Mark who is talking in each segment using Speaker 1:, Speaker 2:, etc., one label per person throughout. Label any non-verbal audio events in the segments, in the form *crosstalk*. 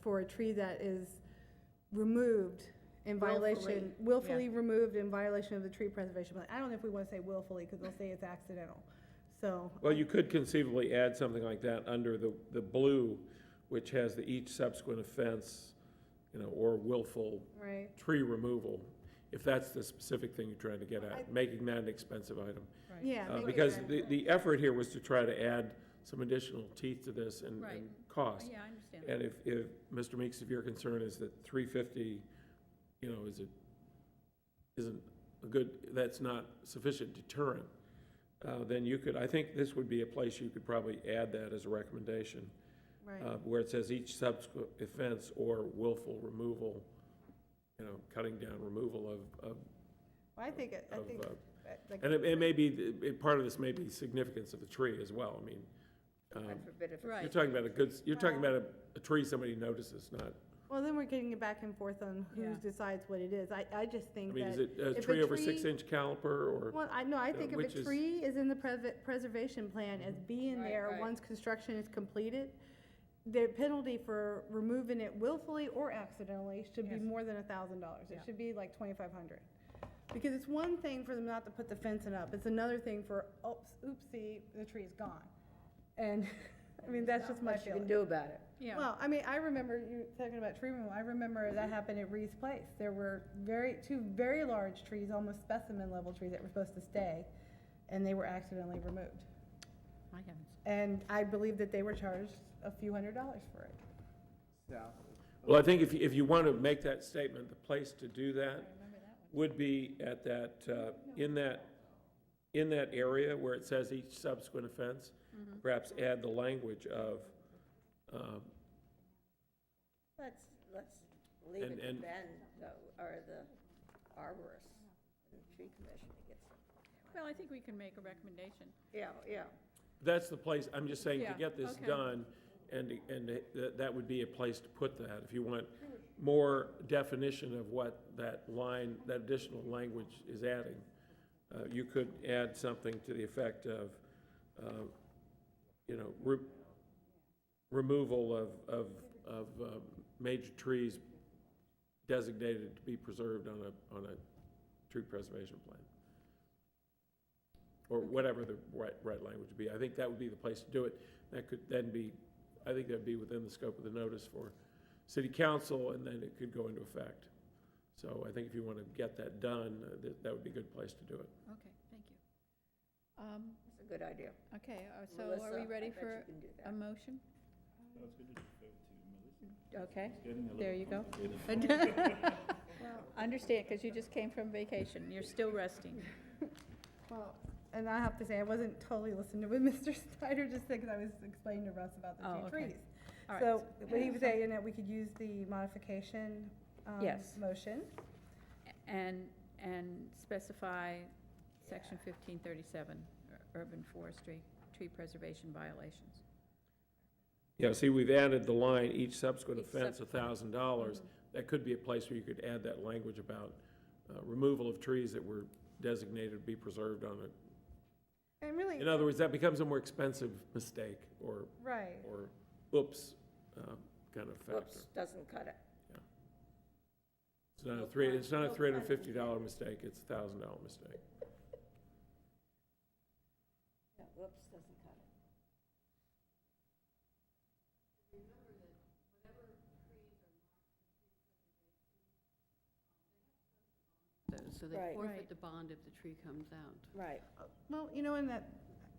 Speaker 1: for a tree that is removed in violation,
Speaker 2: Willfully, yeah.
Speaker 1: willfully removed in violation of the tree preservation plan. I don't know if we wanna say willfully, cause they'll say it's accidental, so.
Speaker 3: Well, you could conceivably add something like that under the, the blue, which has the each subsequent offense, you know, or willful
Speaker 1: Right,
Speaker 3: tree removal, if that's the specific thing you're trying to get
Speaker 1: I-
Speaker 3: at, making that an expensive item.
Speaker 1: yeah.
Speaker 3: Uh,
Speaker 1: make
Speaker 3: Because
Speaker 1: sense.
Speaker 3: the, the effort here was to try to add some additional teeth to this and,
Speaker 2: Right.
Speaker 3: and cost.
Speaker 2: Yeah, I understand.
Speaker 3: And if, if, Mr. Meeks, if your concern is that three fifty, you know, is it, isn't a good, that's not sufficient deterrent, uh, then you could, I think this would be a place you could probably add that as a recommendation,
Speaker 1: Right,
Speaker 3: uh, where it says each subsequent offense or willful removal, you know, cutting down removal of, of,
Speaker 1: Well, I think, it- I
Speaker 3: of,
Speaker 1: think,
Speaker 3: uh,
Speaker 1: that- like,
Speaker 3: and it, it may be, it, part of this may be significance of the tree as well, I mean. um,
Speaker 4: I forbid if it's.
Speaker 2: Right.
Speaker 3: You're talking about a good, you're talking about a, a tree somebody notices, not
Speaker 1: well, then we're getting it back and forth on who
Speaker 2: Yeah.
Speaker 1: decides what it is. I, I just
Speaker 3: I
Speaker 1: think
Speaker 3: mean, is
Speaker 1: that,
Speaker 3: it a
Speaker 1: if a
Speaker 3: tree over
Speaker 1: tree-
Speaker 3: six-inch caliper, or,
Speaker 1: well, I, no, I
Speaker 3: uh,
Speaker 1: think if
Speaker 3: which
Speaker 1: a
Speaker 3: is-
Speaker 1: tree is in the preve- preservation plan as being
Speaker 4: Right,
Speaker 1: there
Speaker 4: right.
Speaker 1: once construction is completed, the penalty for removing it willfully or accidentally should be
Speaker 2: Yes.
Speaker 1: more than a thousand dollars. It
Speaker 2: Yeah.
Speaker 1: should be like twenty-five hundred. Because it's one thing for them not to put the fencing up, it's another thing for, oops, oopsie, the tree's gone. And, *laughs* I mean, that's just my
Speaker 4: Much you
Speaker 1: feeling.
Speaker 4: can do about it.
Speaker 2: Yeah, Mm-hmm.
Speaker 1: Well, I mean, I remember you talking about tree removal. I remember that happened at Reed's Place. There were very, two very large trees, almost specimen level trees that were supposed to stay, and they were accidentally removed.
Speaker 2: I haven't.
Speaker 1: And I believe that they were charged a few hundred dollars for it.
Speaker 5: south of
Speaker 3: well, I think if, you- if you want to make that statement, the place to do that
Speaker 2: Remember that one?
Speaker 3: would be at that, uh, in that, in that area where it says each subsequent offense, perhaps add the language of, um,
Speaker 4: Let's, let's leave
Speaker 3: And-
Speaker 4: it to
Speaker 3: and-
Speaker 4: Ben, though, or the arborist, the tree commission that gets it.
Speaker 2: Well, I think we can make a recommendation.
Speaker 4: Yeah, yeah,
Speaker 3: that's the place, I'm just saying, to
Speaker 2: Yeah,
Speaker 3: get this
Speaker 2: okay.
Speaker 3: done, and, and that, that would be a place to put that, if you want more definition of what that line, that additional language is adding. Uh, you could add something to the effect of, uh, you know, re- removal of, of, of, uh, major trees designated to be preserved on a, on a tree preservation plan. Or whatever the right, right language would be. I think that would be the place to do it. That could then be, I think that'd be within the scope of the notice for city council, and then it could go into effect. So I think if you want to get that done, uh, that, that would be a good place to do it.
Speaker 2: Okay, thank you. Um,
Speaker 4: it's a good idea.
Speaker 2: Okay, uh, so are we
Speaker 4: Melissa,
Speaker 2: ready
Speaker 4: I
Speaker 2: for
Speaker 4: bet you can do
Speaker 2: a
Speaker 4: that.
Speaker 2: motion? Okay.
Speaker 6: getting a
Speaker 2: There you go. *laughs* Understand, because you just came from vacation. You're still resting.
Speaker 1: Well, and I have to say, I wasn't totally listening to what *laughs* Mr. Snyder just said, because I was explaining to Russ about
Speaker 2: Oh,
Speaker 1: the two
Speaker 2: okay.
Speaker 1: trees.
Speaker 2: All right.
Speaker 1: So what
Speaker 2: *laughs*
Speaker 1: he was saying, that we could use the modification, um,
Speaker 2: Yes.
Speaker 1: motion.
Speaker 2: And, and specify section fifteen thirty-seven, uh, urban forestry, tree preservation violations.
Speaker 3: Yeah, see, we've added the line, each subsequent
Speaker 2: Each
Speaker 3: offense, a thousand dollars. That could be a place where you could add that language about uh, removal of trees that were designated to be preserved on it.
Speaker 1: And really,
Speaker 3: In other words, that becomes a more expensive mistake or,
Speaker 1: right.
Speaker 3: or oops, uh, kind of factor.
Speaker 4: Whoops, doesn't cut it.
Speaker 3: It's not a three, it's not a three hundred and fifty dollar mistake, it's a thousand dollar mistake.
Speaker 4: Yeah, Whoops, doesn't cut it.
Speaker 7: So- So they
Speaker 4: Right.
Speaker 7: forfeit
Speaker 2: Right.
Speaker 7: the bond if the tree comes out.
Speaker 4: Right.
Speaker 1: Well, you know, and that,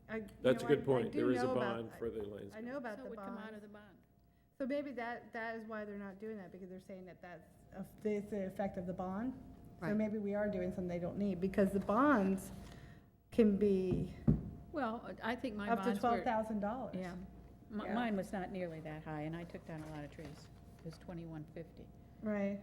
Speaker 1: I. you
Speaker 3: That's a
Speaker 1: know, I-
Speaker 3: good
Speaker 1: I
Speaker 3: point,
Speaker 1: do
Speaker 3: there is a
Speaker 1: know about-
Speaker 3: bond for the lands.
Speaker 1: I know about
Speaker 2: So
Speaker 1: the
Speaker 2: it would come
Speaker 1: bond.
Speaker 2: out of the bond.
Speaker 1: So maybe that, that is why they're not doing that, because they're saying that that's, a- that's the effect of the bond. So
Speaker 7: Right.
Speaker 1: maybe we are doing something they don't need, because the bonds can be
Speaker 2: Well, I think my
Speaker 1: up to
Speaker 2: bonds
Speaker 1: twelve
Speaker 2: were,
Speaker 1: thousand dollars.
Speaker 2: yeah. Mi-
Speaker 4: Yeah.
Speaker 2: Mine was not nearly that high, and I took down a lot of trees. It was twenty-one fifty.
Speaker 1: Right.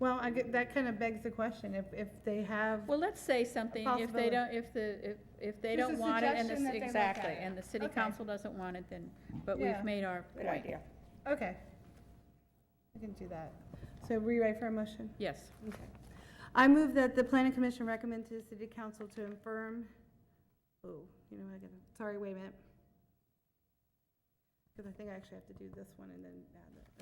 Speaker 1: Well, I get, that kind of begs the question, if, if they have,
Speaker 2: Well, let's say something, if
Speaker 1: Possibility.
Speaker 2: they don't, if the, if, if they
Speaker 1: Just a
Speaker 2: don't want it, and
Speaker 1: suggestion that
Speaker 2: the,
Speaker 1: they look
Speaker 2: exactly,
Speaker 1: at it.
Speaker 2: and the city
Speaker 1: Okay.
Speaker 2: council doesn't want it, then, but
Speaker 1: Yeah.
Speaker 2: we've made our
Speaker 4: Good
Speaker 2: point.
Speaker 4: idea.
Speaker 1: okay. We can do that. So we ready for a motion?
Speaker 2: Yes.
Speaker 1: Okay. I move that the planning commission recommend to the city council to affirm, oh, you know, what I gotta, sorry, wait a minute. Because I think I actually have to do this one and then add it,